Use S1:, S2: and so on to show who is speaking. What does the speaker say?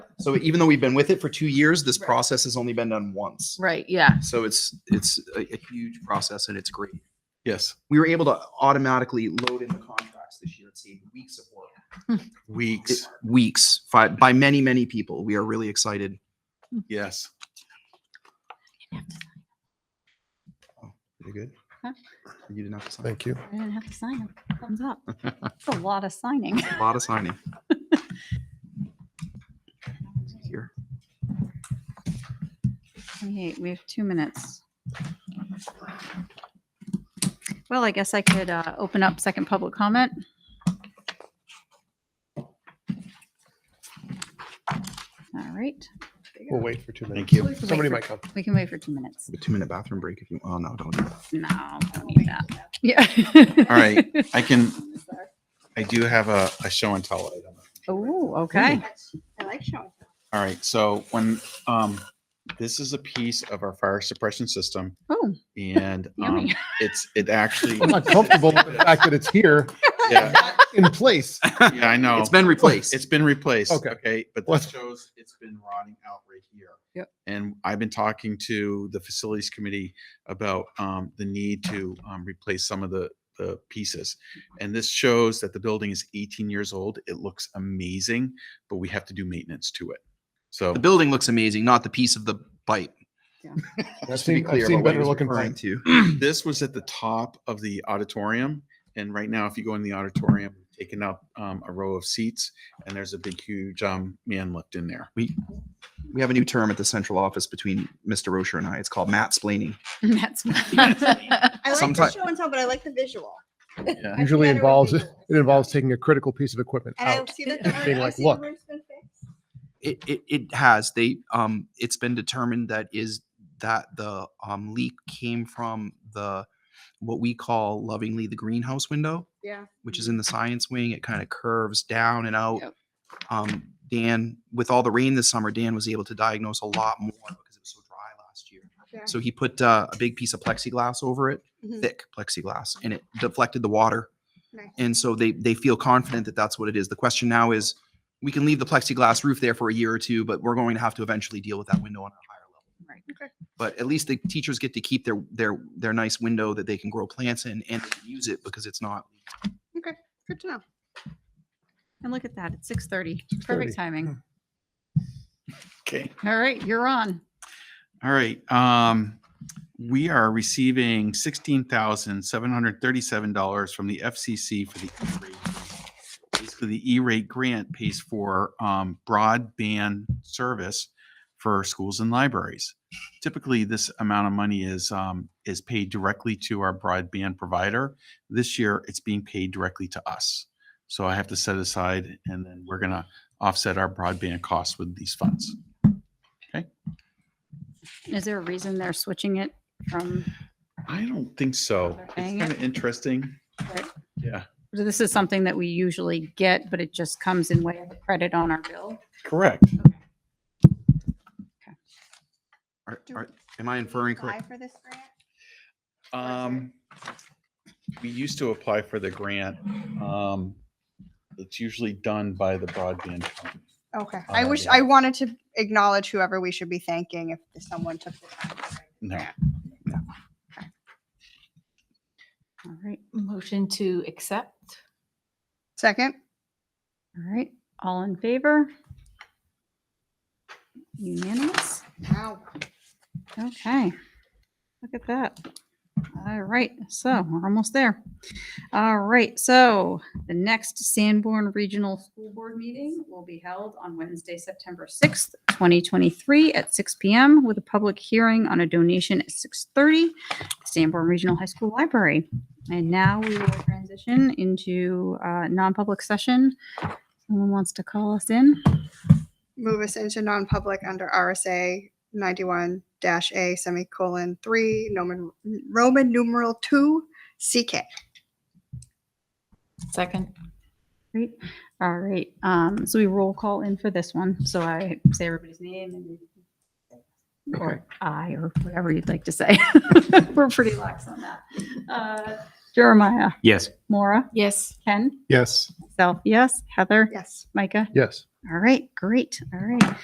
S1: So even though we've been with it for two years, this
S2: Right.
S1: process has only been done once.
S2: Right, yeah.
S1: So it's, it's a, a huge process and it's great.
S3: Yes,
S1: We were able to automatically load in the contracts this year. It saved weeks of work.
S3: weeks.
S1: Weeks, five, by many, many people. We are really excited.
S3: Yes.
S1: You're good?
S2: Huh?
S1: You didn't have to sign.
S4: Thank you.
S2: I didn't have to sign them. Thumbs up. It's a lot of signing.
S1: A lot of signing. Here.
S2: Twenty-eight, we have two minutes. Well, I guess I could uh, open up second public comment. All right,
S4: We'll wait for two minutes.
S3: Thank you.
S4: Somebody might come.
S2: we can wait for two minutes.
S1: A two minute bathroom break if you, oh no, don't do that.
S2: No, don't need that. Yeah.
S3: All right. I can, I do have a, a show and tell item.
S2: Oh, okay.
S5: I like showing.
S3: All right. So when, um, this is a piece of our fire suppression system
S2: Oh,
S3: and, um,
S2: yummy.
S3: it's, it actually,
S4: I'm not comfortable with the fact that it's here
S3: yeah,
S4: in place.
S3: yeah, I
S4: Oh.
S3: know.
S1: It's been replaced.
S3: It's been replaced.
S4: Okay.
S3: Okay, but
S4: What?
S3: that shows it's been rotting out right here.
S2: Yep.
S3: And I've been talking to the facilities committee about um, the need to um, replace some of the, the pieces. And this shows that the building is 18 years old. It looks amazing, but we have to do maintenance to it. So
S1: The building looks amazing, not the piece of the pipe.
S4: I've
S1: Just to be
S4: seen, I've
S1: clear
S4: seen
S1: about what he
S4: better
S1: was
S4: looking
S1: referring
S4: things.
S1: To.
S3: this was at the top of the auditorium. And right now, if you go in the auditorium, taking up um, a row of seats, and there's a big, huge um, man lift in there.
S1: We have a new term at the central office between Mr. Rocher and I. It's called Matt splaining.
S2: That's.
S5: I like the
S1: Sometime-
S5: show and tell, but I like the visual.
S3: Yeah.
S5: I do
S4: Usually
S5: better with
S4: involves, it
S5: visuals.
S4: involves taking a critical piece of equipment
S5: And I
S4: out.
S5: see that. the word-
S4: being
S5: I
S4: like,
S5: see the
S4: look.
S5: word's been fixed.
S1: It, it, it has. They um it's been determined that is that the um leak came from the what we call lovingly the greenhouse window,
S5: Yeah.
S1: which is in the science wing. It kind of curves down and out.
S2: Yep.
S1: Um Dan, with all the rain this summer, Dan was able to diagnose a lot more because it was so dry last year.
S5: Okay.
S1: So he put uh, a big piece of plexiglass over it,
S5: Mhm.
S1: thick plexiglass, and it deflected the water.
S5: Nice.
S1: And so they they feel confident that that's what it is. The question now is, we can leave the plexiglass roof there for a year or two, but we're going to have to eventually deal with that window on a higher level.
S2: Right.
S5: Okay.
S1: But at least the teachers get to keep their their their nice window that they can grow plants in and use it because it's not.
S5: Good to know.
S2: And look at that, it's six thirty. Perfect
S4: 6:30.
S2: timing.
S3: Okay.
S2: All right, you're on.
S3: All right. Um, we are receiving sixteen thousand seven hundred thirty-seven dollars from the FCC for the E-rate. basically the E-rate grant pays for um, broadband service for schools and libraries. Typically, this amount of money is um, is paid directly to our broadband provider. This year, it's being paid directly to us. So I have to set aside, and then we're gonna offset our broadband costs with these funds.
S2: Is there a reason they're switching it from,
S3: I don't think so.
S2: Another
S3: It's
S2: thing.
S3: kind of interesting.
S2: Right.
S3: Yeah,
S2: this is something that we usually get, but it just comes in way of a credit on our bill?
S3: correct.
S1: Are,
S5: Do
S1: are, am I inferring correct?
S5: Apply for this grant?
S3: Um, we used to apply for the grant. Um, it's usually done by the broadband. company.
S5: Okay. I
S3: Uh,
S5: wish,
S3: yeah.
S5: I wanted to acknowledge whoever we should be thanking if someone took the time. to write the
S3: No.
S5: grant.
S2: All right,
S6: Motion to accept?
S5: Second?
S2: all right, all in favor? Unanimous?
S5: Wow.
S2: Okay. Look at that. All right, so we're almost there. All right, so the next Sanborn Regional School Board meeting will be held on Wednesday, September 6th, 2023 at 6 PM with a public hearing on a donation at 6:30, Sanborn Regional High School Library. And now we will transition into uh, non-public session. Someone wants to call us in?
S5: Move us into non-public under RSA ninety-one dash A semicolon three, Roman, Roman numeral two, CK.
S6: Second?
S2: Great. All right. Um, so we roll call in for this one. So I say everybody's name and you- or I or whatever you'd like to say. We're pretty lax on that. Uh, Jeremiah,
S1: Yes.
S2: Maura,
S6: Yes.
S2: Ken,
S4: Yes,
S2: self, yes, Heather,
S5: Yes.
S2: Micah.
S4: yes.
S2: All right, great. All right.